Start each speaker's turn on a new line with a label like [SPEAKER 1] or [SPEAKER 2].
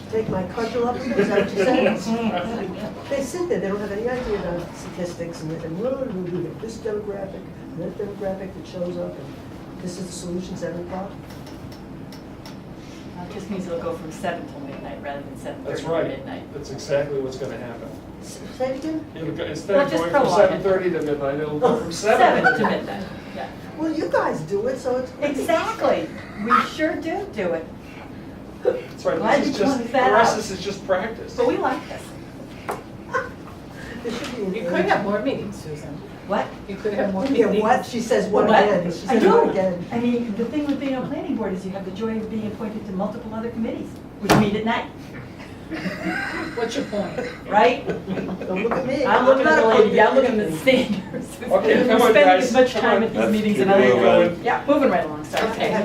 [SPEAKER 1] take my cudgel up, is that what you're saying? They sit there, they don't have any idea about statistics, and and what are we doing, with this demographic, and that demographic that shows up, and this is the solution, seven o'clock?
[SPEAKER 2] It just means it'll go from seven till midnight rather than seven thirty
[SPEAKER 3] That's
[SPEAKER 2] to
[SPEAKER 3] right.
[SPEAKER 2] midnight.
[SPEAKER 3] That's exactly what's gonna happen.
[SPEAKER 1] S- Say it again?
[SPEAKER 3] It'll go- Instead
[SPEAKER 2] Well,
[SPEAKER 3] of
[SPEAKER 2] just
[SPEAKER 3] going from
[SPEAKER 2] prolong it.
[SPEAKER 3] seven thirty to midnight, it'll go from seven.
[SPEAKER 2] to midnight, yeah.
[SPEAKER 1] Well, you guys do it, so it's.
[SPEAKER 2] Exactly, we sure do do it,
[SPEAKER 3] That's right,
[SPEAKER 2] Glad
[SPEAKER 3] this is
[SPEAKER 2] you
[SPEAKER 3] just,
[SPEAKER 2] pointed
[SPEAKER 3] for
[SPEAKER 2] that
[SPEAKER 3] us,
[SPEAKER 2] out.
[SPEAKER 3] this is just practice.
[SPEAKER 2] but we like this.
[SPEAKER 1] It should be.
[SPEAKER 4] You could have more meetings, Susan.
[SPEAKER 2] What?
[SPEAKER 4] You could have more
[SPEAKER 1] Yeah,
[SPEAKER 4] meetings.
[SPEAKER 1] what? She says one
[SPEAKER 2] What?
[SPEAKER 1] again. She
[SPEAKER 2] I
[SPEAKER 1] says
[SPEAKER 2] do.
[SPEAKER 1] one again.
[SPEAKER 2] I mean, the thing with being on planning board is you have the joy of being appointed to multiple other committees, which meet at night,
[SPEAKER 4] What's your point?
[SPEAKER 2] right?
[SPEAKER 1] Don't look at me.
[SPEAKER 2] I'm looking at the lady, I'm looking at
[SPEAKER 1] at
[SPEAKER 2] the standards.
[SPEAKER 3] Okay, come on,
[SPEAKER 2] We're spending
[SPEAKER 3] guys,
[SPEAKER 2] as much
[SPEAKER 3] come
[SPEAKER 2] time
[SPEAKER 3] on.
[SPEAKER 2] at these
[SPEAKER 5] Let's
[SPEAKER 2] meetings
[SPEAKER 5] keep
[SPEAKER 2] and other.
[SPEAKER 5] moving.
[SPEAKER 2] Yeah, moving right along, sorry.
[SPEAKER 1] Okay.